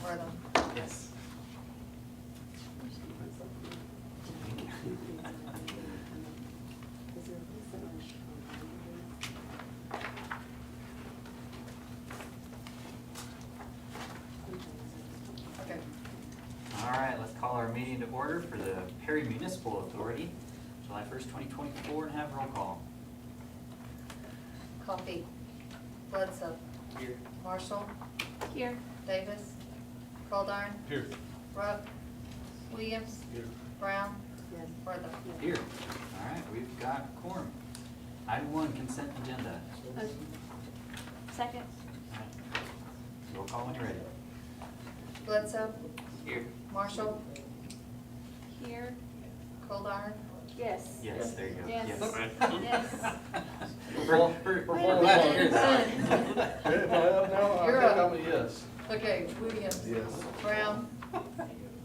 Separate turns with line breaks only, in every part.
for them.
Yes.
Okay.
All right, let's call our meeting to order for the Perry Municipal Authority, July first, twenty twenty-four, and have roll call.
Coffee. Bledsoe.
Here.
Marshall.
Here.
Davis. Coldarn.
Here.
Rupp. Williams.
Here.
Brown.
Yes.
Worthing.
Here. All right, we've got quorum. Item one, consent agenda.
Second?
All right. Roll call when you're ready.
Bledsoe.
Here.
Marshall.
Here.
Coldarn.
Yes.
Yes, there you go.
Yes.
Yes.
Yes.
We're, we're, we're glad to hear that.
If I have now, I
You're
think
up.
I'm a yes.
Okay, Williams.
Yes.
Brown. Worthing.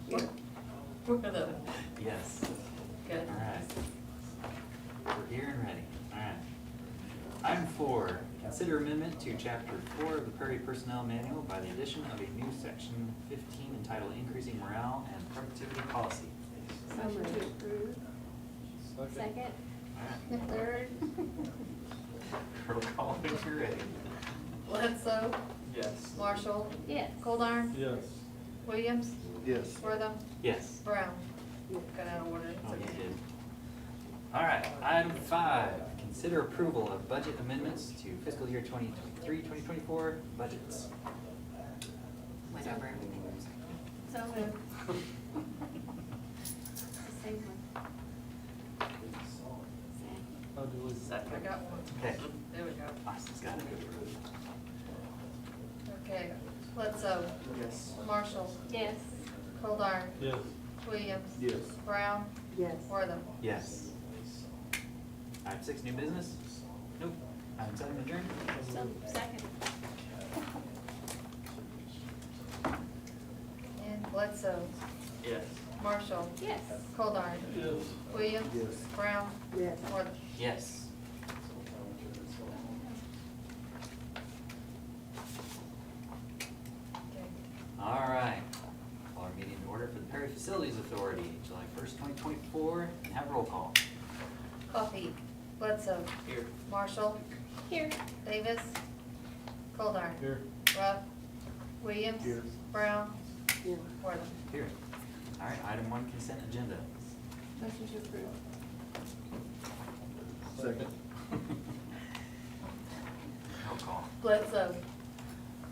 Yes, all
Good.
right. We're here and ready, all right. Item four, consider amendment to chapter four of the Prairie Personnel Manual by the addition of a new section fifteen entitled Increasing Morale and Productivity Policy.
Motion to approve. Second?
All right.
Third?
Roll call if you're ready.
Bledsoe.
Yes.
Marshall.
Yes.
Coldarn.
Yes.
Williams.
Yes.
Worthing.
Yes.
Brown. Got out of order.
Oh, you
It's okay.
did. All right, item five, consider approval of budget amendments to fiscal year 2023-2024 budgets.
went over everything. that was like-
So moved. The same one. Same.
I got one.
Okay.
There we go.
Austin's got it.
Okay, Bledsoe.
Yes.
Marshall.
Yes.
Kolar.
Yes.
Williams.
Yes.
Brown.
Yes.
Wortham.
Yes. Item six, new business? Nope. Item seven, adjourned?
So, second?
And Bledsoe.
Yes.
Marshall.
Yes.
Kolar.
Yes.
Williams.
Yes.
Brown.
Yes.
Wortham.
Yes.
Okay.
All right. Call our meeting in order for the Perry Facilities Authority, July first, twenty twenty-four, and have roll call.
Coffee. Bledsoe.
Here.
Marshall.
Here.
Davis. Kolar.
Here.
Ruff. Williams.
Here.
Brown. Wortham.
Here. All right, item one, consent agenda.
Motion to approve.
Second.
Roll call.
Bledsoe.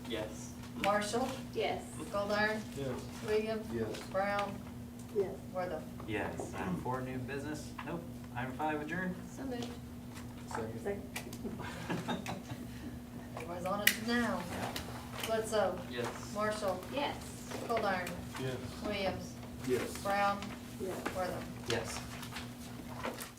Yes.
Marshall.
Yes.
Kolar.
Yes.
Williams.
Yes.
Brown.
Yes.
Wortham.
Yes. Item four, new business? Nope. Item five, adjourned?
So moved.
Second.
Everybody's on it now.
Yeah.
Bledsoe.
Yes.
Marshall.
Yes.
Coldarn.
Yes.
Williams.
Yes.
Brown.
Yes.
Wortham.
Yes.